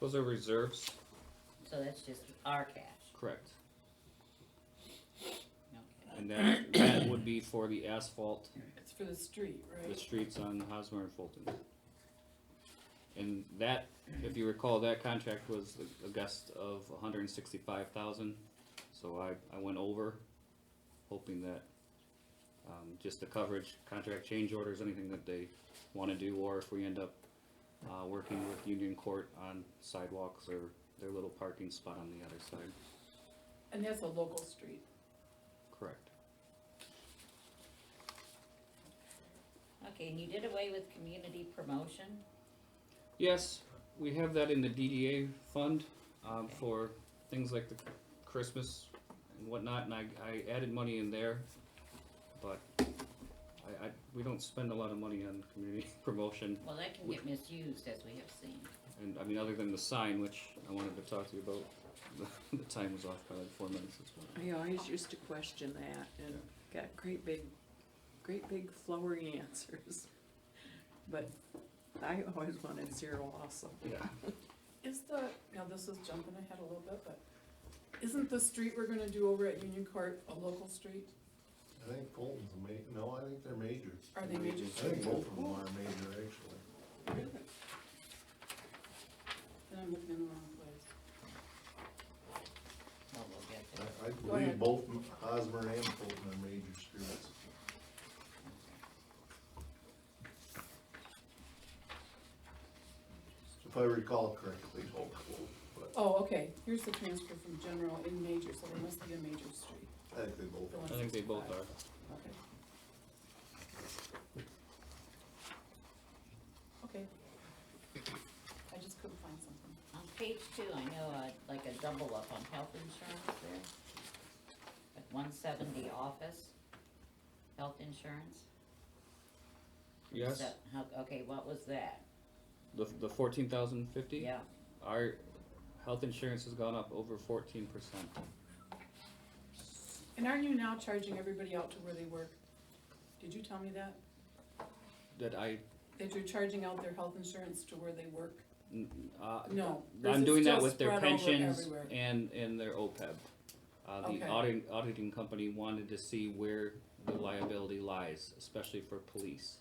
Those are reserves, So that's just our cash. correct. Okay. And that, that would be for the asphalt, It's for the street, the right? streets on Hosmer and Fulton. And that, if you recall, that contract was a- a guest of hundred and sixty-five thousand, so I, I went over, hoping that, um, just the coverage, contract change orders, anything that they wanna do, or if we end up, uh, working with Union Court on sidewalks or their little parking spot on the other side, And that's a local street. correct? Okay, and you did away with community promotion? Yes, we have that in the DDA fund, um, Okay. for things like the Christmas and whatnot, and I, I added money in there. But I, I, we don't spend a lot of money on community promotion, Well, that can get misused as we have seen. and I mean, other than the sign, which I wanted to talk to you about, the, the time was off by like four minutes as well. I always used to question that and got great big, great big flowery answers. But I always wanted zero also. Yeah, Is the, now this is jumping ahead a little bit, but isn't the street we're gonna do over at Union Court a local street? I think Fulton's a ma- no, I think they're major. Are they major I think streets? both of them are major, actually. Really? Then I'm looking in the wrong place. Well, we'll get there. I, I Go ahead. believe both M- Hosmer and Fulton are major streets. If I recall correctly, both, but Oh, okay, here's the transfer from general in major, so there must be a major street. I think they both The are. I think they both are. 165. Okay. Okay. I just couldn't find something. On page two, I know, uh, like a double up on health insurance there. At one seventy office, health insurance. Yes, So, how- Okay, what was that? the, the fourteen thousand fifty? Yeah, Our health insurance has gone up over fourteen percent. And aren't you now charging everybody out to where they work? Did you tell me that? That I, That you're charging out their health insurance to where they work? n- uh, No. this I'm is doing that just with their spread over pensions everywhere. and, and their OPEB. Uh, the Okay. auditing, auditing company wanted to see where the liability lies, especially for police.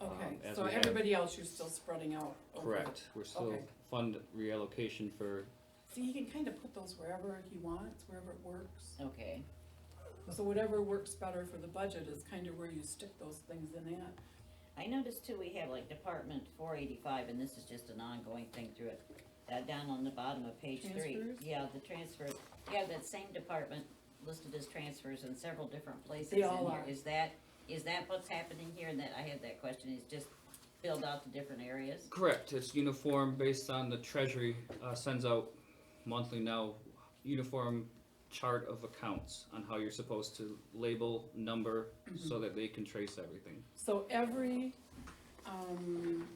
Okay, um, as so we have- everybody else you're still spreading out over. Correct, we're still Oh, Okay. fund reallocation for, See, he can kind of put those wherever he wants, wherever it works. okay, So whatever works better for the budget is kind of where you stick those things in at. I noticed too, we have like Department four eighty-five, and this is just an ongoing thing through it. Uh, down on the bottom of page three. Transfers? Yeah, the transfers, yeah, that same department listed as transfers in several different places in They here. Is all are. that, is that what's happening here, and that, I had that question, is just filled out the different areas? correct, it's uniform based on the treasury, uh, sends out monthly now, uniform chart of accounts on how you're supposed to label, number, Mm-hmm. so that they can trace everything. So every, um,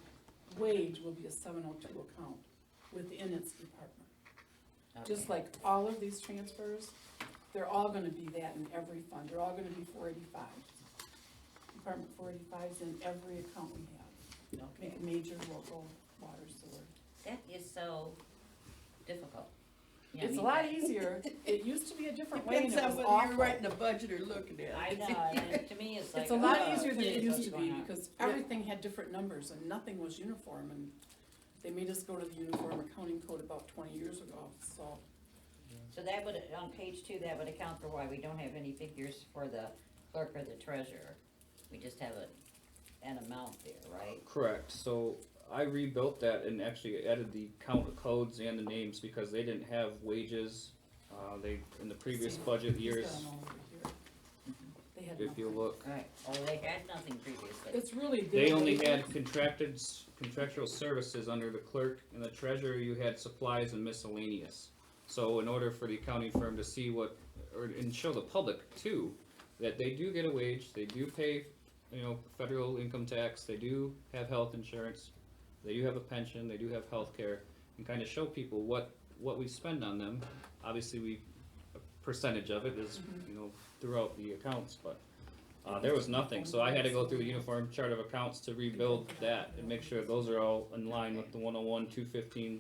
wage will be a seven oh two account within its department. Just Okay. like all of these transfers, they're all gonna be that in every fund, they're all gonna be four eighty-five. Department four eighty-five's in every account we have, Okay, ma- major local water sewer. that is so difficult. You know, I It's a mean, lot that- easier, it used to be a different way and Depends it on was whether you're awful. writing the budget or looking at I it. know, and it- to me, it's like. It's a lot oh, easier than it geez, used what's to going be on? because everything had different numbers and nothing was uniform and they made us go to the uniform accounting code about twenty years ago, so. So that would, on page two, that would account for why we don't have any figures for the clerk or the treasurer. We just have a, an amount there, right? Correct. So I rebuilt that and actually added the count of codes and the names because they didn't have wages. Uh, they, in the previous See, budget he's years, got 'em all over here. They had if you nothing. look, Right, oh, they had nothing previously. It's really. they their only wages. had contracted, s- contractual services under the clerk and the treasurer, you had supplies and miscellaneous. So in order for the accounting firm to see what, or, and show the public too, that they do get a wage, they do pay, you know, federal income tax, they do have health insurance, they do have a pension, they do have health care, and kind of show people what, what we spend on them. Obviously, we, a percentage of it is, you know, throughout the accounts, but, uh, there was nothing, so I had to go through the uniform chart of accounts to rebuild that and make sure those are all in line with the one oh one, two fifteen,